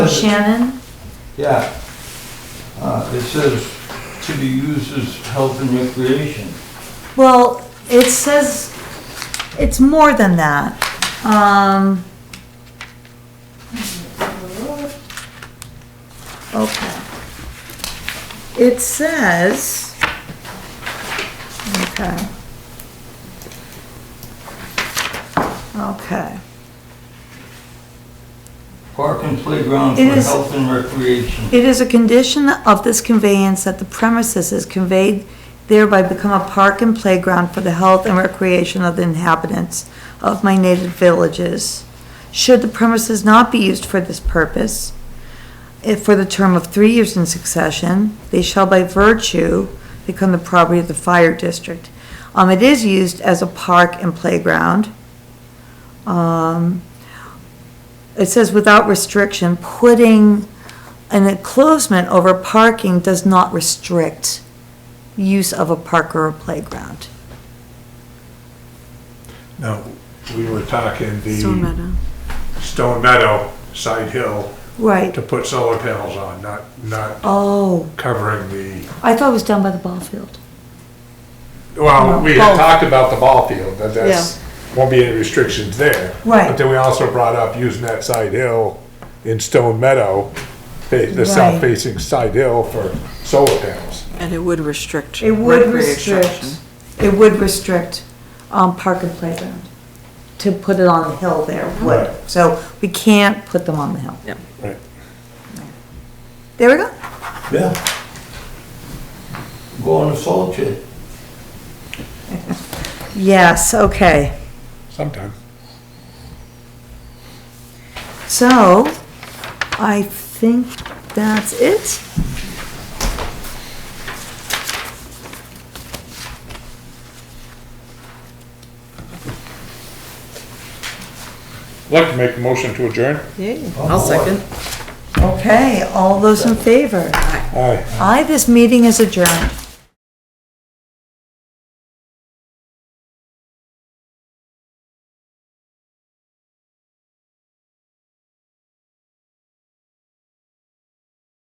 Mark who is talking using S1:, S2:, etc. S1: Shannon?
S2: Yeah. Uh, it says to be used as health and recreation.
S1: Well, it says, it's more than that. Um. Okay. It says, okay. Okay.
S2: Park and playground for
S1: It is-
S2: health and recreation.
S1: It is a condition of this conveyance that the premises is conveyed thereby become a park and playground for the health and recreation of the inhabitants of my native villages. Should the premises not be used for this purpose, if for the term of three years in succession, they shall by virtue become the property of the fire district. Um, it is used as a park and playground. Um, it says without restriction, putting an enclosement over parking does not restrict use of a park or a playground.
S3: No, we were talking
S4: Stone
S3: the
S4: Meadow.
S3: Stone Meadow side hill
S1: Right.
S3: to put solar panels on, not, not
S1: Oh,
S3: covering the,
S1: I thought it was down by the ball field.
S3: well, we
S1: Both.
S3: had talked about the ball field, that that's, won't be any restrictions there.
S1: Right.
S3: But then we also brought up using that side hill in Stone Meadow, fa- the
S1: Right.
S3: south facing side hill for solar panels.
S4: And it would restrict.
S1: It would
S4: recreation.
S1: restrict, it would restrict, um, park and playground. To put it on the hill there would,
S3: Right.
S1: so we can't put them on the hill.
S4: Yep.
S3: Right.
S1: There we go.
S2: Yeah. Go on a salt shed.
S1: Yes, okay.
S3: Sometime.
S1: So, I think that's it.
S3: I'd Like to make a motion to adjourn?
S4: Yeah, I'll second.
S1: Okay, all those in favor?
S3: Aye.
S1: Aye, this meeting is adjourned.